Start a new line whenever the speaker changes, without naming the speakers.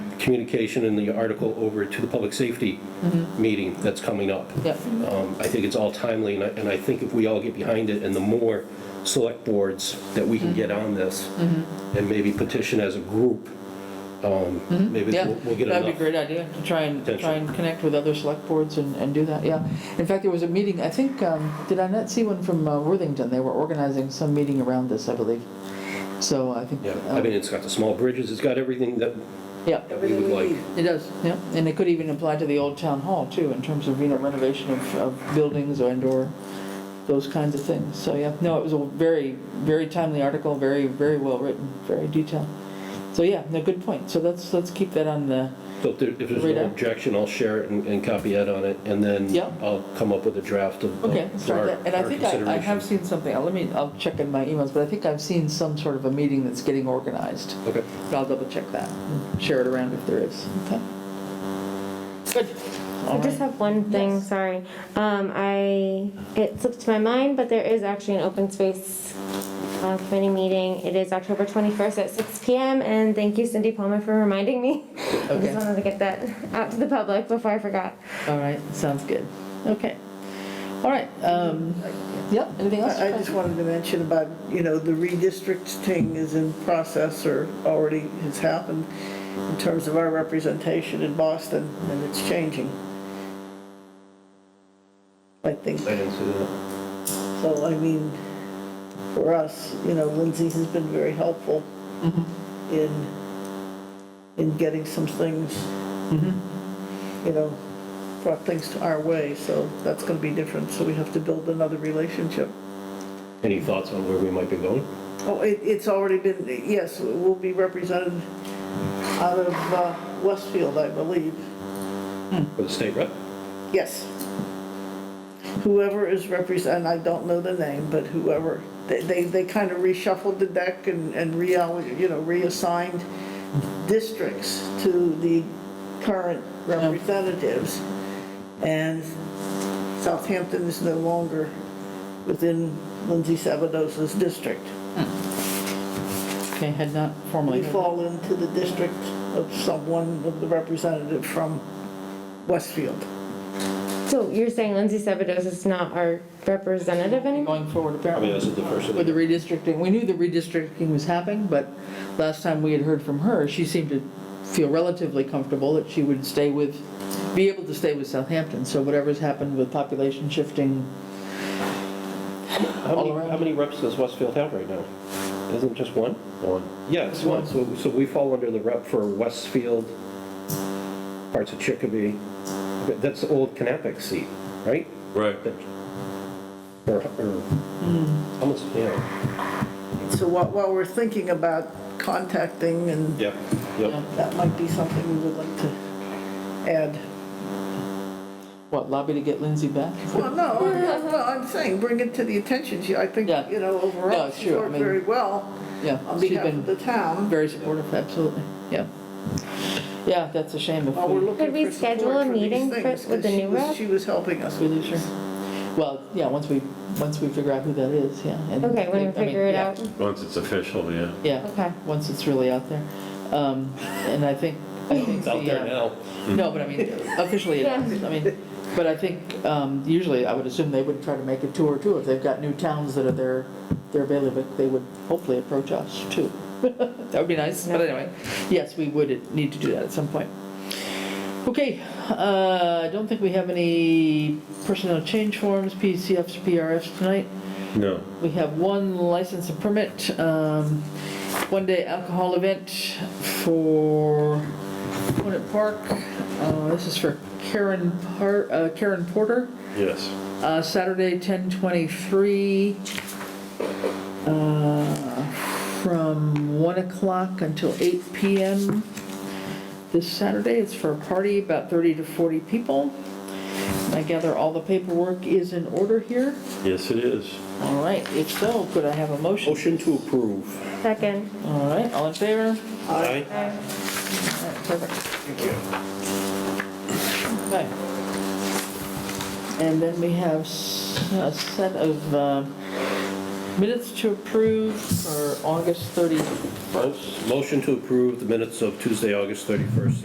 communication in the article over to the public safety
Mm-hmm.
meeting that's coming up.
Yep.
Um, I think it's all timely, and I, and I think if we all get behind it, and the more select boards that we
Mm-hmm.
can get on this, and maybe petition as a group, um, maybe
Mm-hmm. Yeah,
we'll we'll get
that'd be a
enough.
great idea, to try and,
Potential.
try and connect with other select boards and, and do that, yeah. In fact, there was a meeting, I think, um, did I not see one from uh, Worthington? They were organizing some meeting around this, I believe. So I think.
Yeah,
um,
I mean, it's got the small bridges, it's got everything that
Yeah,
that we would like.
it does, yeah, and it could even apply to the old town hall too, in terms of, you know, renovation of, of buildings and or those kinds of things, so yeah, no, it was a very, very timely article, very, very well written, very detailed. So yeah, no, good point, so let's, let's keep that on the,
So if there- if there's
Rita?
no objection, I'll share it and and copy Ed on it, and then
Yeah.
I'll come up with a draft of.
Okay,
of
start
our-
that, and I
our
think I, I have
considerations.
seen something, I'll- let me, I'll check in my emails, but I think I've seen some sort of a meeting that's getting organized.
Okay.
But I'll double check that, and share it around if there is, okay? Good. All
I just
right.
have one thing,
Yes.
sorry. Um, I, it slipped my mind, but there is actually an open space uh, committee meeting. It is October 21st at 6 PM, and thank you Cindy Palmer for reminding me. I
Okay.
just wanted to get that out to the public before I forgot.
All right, sounds good, okay. All right, um, yeah, anything else?
I I just wanted to mention about, you know, the redistrict thing is in process or already has happened in terms of our representation in Boston, and it's changing. I think,
I didn't see that.
so I mean, for us, you know, Lindsay has been very helpful in, in getting some things, you know, brought things to our way, so that's gonna be different, so we have to build another relationship.
Any thoughts on where we might be going?
Oh, it, it's already been, yes, we'll be represented out of uh, Westfield, I believe.
For the state rep?
Yes. Whoever is represent, I don't know the name, but whoever, they, they, they kind of reshuffled the deck and, and reall, you know, reassigned districts to the current representatives. And Southampton is no longer within Lindsay Sabadosa's district.
Okay, had not formally.
We fall into the district of someone, of the representative from Westfield.
So you're saying Lindsay Sabados is not our representative anymore?
Going forward
I
apparently.
mean, this is the first. of
With the
the-
redistricting, we knew the redistricting was happening, but last time we had heard from her, she seemed to feel relatively comfortable that she would stay with, be able to stay with Southampton. So whatever's happened with population shifting,
How
all
many,
around.
how many reps does Westfield have right now? Isn't it just one? One. Yeah, it's one. So, so we fall under the rep for Westfield, parts of Chicopee. Okay, That's the old Knappich seat, right?
Right.
Or, or, almost, yeah.
So while, while we're thinking about contacting and
Yep,
Yeah.
yep.
that might be something we would like to add.
what, lobby to get Lindsay back?
Well, no, I'm- well, I'm saying, bring it to the attention, she, I think,
Yeah.
you know,
No,
overall,
it's
she's
true. I
worked
mean-
very well
Yeah,
on
she's
behalf of
been
the town.
very supportive, absolutely, yeah. Yeah, that's a shame if
While
we,
we're looking
Could we
for support
schedule a
for these
meeting for-
things,
with the
'cause she
new
was-
rep?
She was helping us
we
with
lose her. Well, yeah, once we, once we figure out who that is, yeah. and-
Okay,
I
when we
mean,
figure it
yeah.
out.
Once it's official, yeah.
Yeah.
Okay.
Once it's really out there. Um, and I think, I think
It's
the,
out there
uh,
now.
no, but I mean, officially, it is. I mean, but I think, um, usually I would assume they would try to make a tour too. If they've got new towns that are their, their bailiwick, they would hopefully approach us too. That would be nice, but anyway, yes, we would need to do that at some point. Okay, uh, I don't think we have any personnel change forms, PCFs, PRFs tonight.
No.
We have one license and permit, um, one-day alcohol event for Conant Park. Uh, This is for Karen Par, uh, Karen Porter,
Yes.
uh, Saturday, 10/23, uh, from 1 o'clock until 8 PM this Saturday. It's for a party, about 30 to 40 people. I gather all the paperwork is in order here.
Yes, it is.
All right, if so, could I have a motion?
Motion to approve.
Second.
All right, all in favor?
Aye.
Okay.
All right, perfect. Thank you. Okay. And then we have s- a set of uh, minutes to approve for August 31st.
Motion to approve the minutes of Tuesday, August 31st,